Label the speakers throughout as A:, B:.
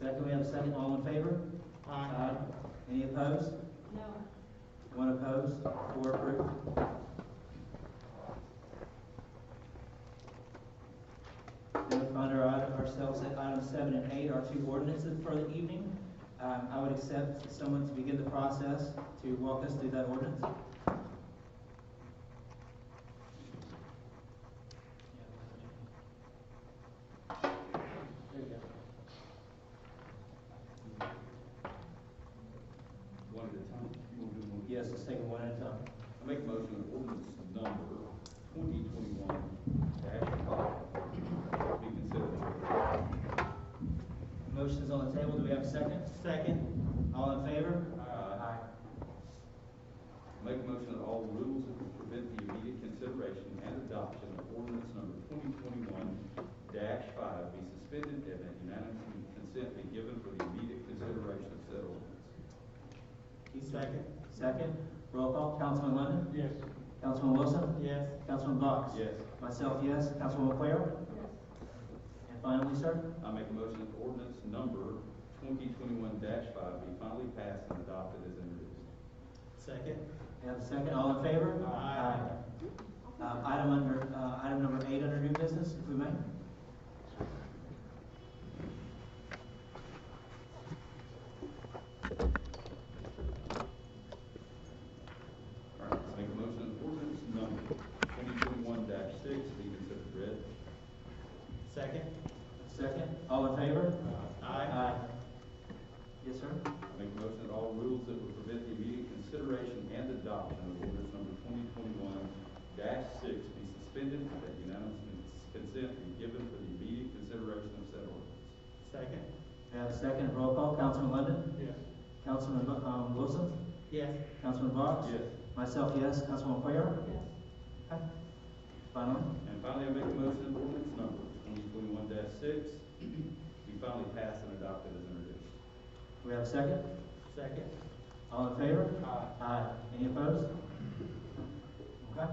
A: Second, we have a second, all in favor? Aye. Any opposed?
B: No.
A: One opposed, four approved. Then we find our item- ourselves at item seven and eight, our two ordinances for the evening. Um, I would accept someone to begin the process to walk us through that ordinance. There you go.
C: One at a time. You wanna do them one at a
A: Yes, let's take them one at a time.
C: time? I make a motion that ordinance number twenty twenty-one dash five be considered.
A: Motion's on the table, do we have a second? Second. All in favor?
C: Aye. Make a motion that all rules that would prevent the immediate consideration and adoption of ordinance number twenty twenty-one dash five be suspended and that unanimous consent be given for the immediate consideration of said ordinance.
A: He's second. Second. Roll call, Councilman Lennon?
D: Yes.
A: Councilman Wilson?
D: Yes.
A: Councilman Box?
C: Yes.
A: Myself, yes. Councilman Quayle?
B: Yes.
A: And finally, sir?
C: I make a motion that ordinance number twenty twenty-one five be finally passed and adopted as introduced.
D: Second?
A: We have a second, all in favor?
D: Aye.
A: Aye. Um, item under, uh, item number eight under new business, if we may.
C: All right, let's make a motion that ordinance number twenty twenty-one six be considered read.
D: Second?
A: Second, all in favor?
D: Aye.
A: Yes, sir?
C: I Make a motion that all rules that would prevent the immediate consideration and adoption of ordinance number twenty twenty-one six be suspended and that unanimous consent be given for the immediate consideration of said ordinance.
D: Second?
A: We have a second, roll call, Councilman Lennon?
D: Yes.
A: Councilman, um, Wilson?
D: Yes.
A: Councilman Box?
C: Yes.
A: Myself, yes. Councilman Quayle?
B: Yes.
A: Okay. Finally?
C: And finally, I make a motion that ordinance number twenty twenty-one six be finally passed and adopted as introduced.
A: We have a second?
D: Second?
A: All in favor?
D: Aye.
A: Aye. Any opposed? Okay.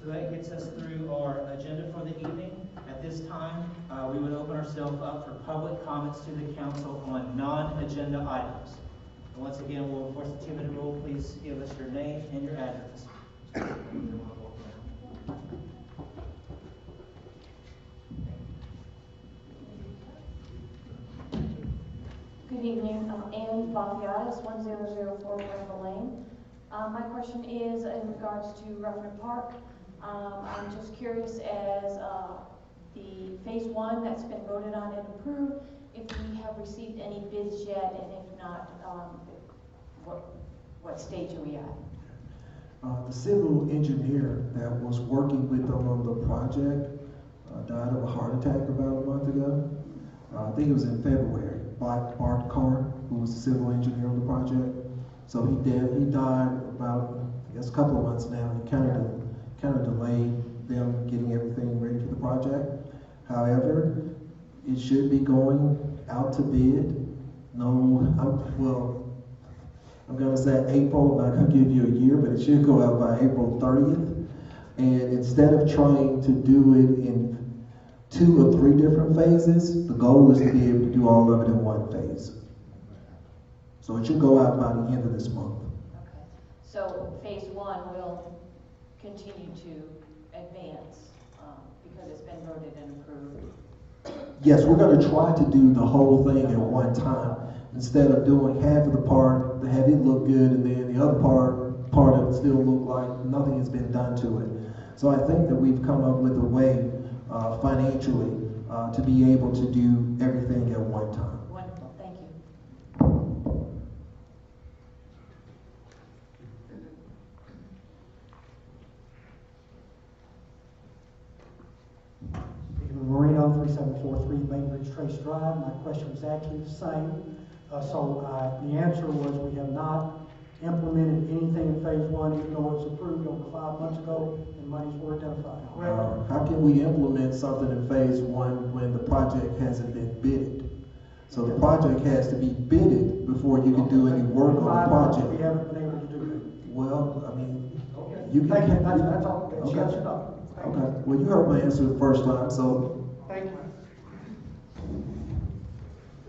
A: So that gets us through our agenda for the evening. At this time, uh, we would open ourselves up for public comments to the council on non-agenda items. And once again, we'll enforce the two-minute rule. Please give us your name and your address.
E: Good evening, I'm Ann Bobbias, one zero zero four West Lane. Um, my question is in regards to Ruffin Park. Um, I'm just curious as, uh, the phase one that's been voted on and approved, if we have received any bids yet, and if not, um, what, what stage are we at?
F: Uh, the civil engineer that was working with them on the project uh, died of a heart attack about a month ago. Uh, I think it was in February. Bart, Bart Carr, who was the civil engineer on the project, so he did. He died about I guess a couple of months now. It kind of kind of delayed them getting everything ready for the project. However, it should be going out to bid. No, I'm, well, I'm gonna say April, not gonna give you a year, but it should go out by April thirtieth. And instead of trying to do it in two or three different phases, the goal is to be able to do all of it in one phase. So it should go out by the end of this month.
E: Okay. So phase one will continue to advance, um, because it's been voted and approved.
F: Yes, we're gonna try to do the whole thing at one time, instead of doing half of the part, the have it look good, and then the other part, part of it still look like nothing has been done to it. So I think that we've come up with a way, uh, financially, uh, to be able to do everything at one time.
E: Wonderful, thank you.
G: Peter Moreno, 3743 Bainbridge Trace Drive. My question was actually the same. Uh, So uh, the answer was we have not implemented anything in phase one, even though it was approved over five months ago and monies were identified.
F: Uh, How can we implement something in phase one when the project hasn't been bidded? So the project has to be bidded before you can do any work on
G: Five
F: the
G: months, We
F: project.
G: haven't been able to do
F: Well, I mean,
G: that. Okay.
F: You can-
G: Thank you, that's, that's all. That's
F: Okay.
G: yes or no. Thank you.
F: Okay, well, you heard my answer the first time, so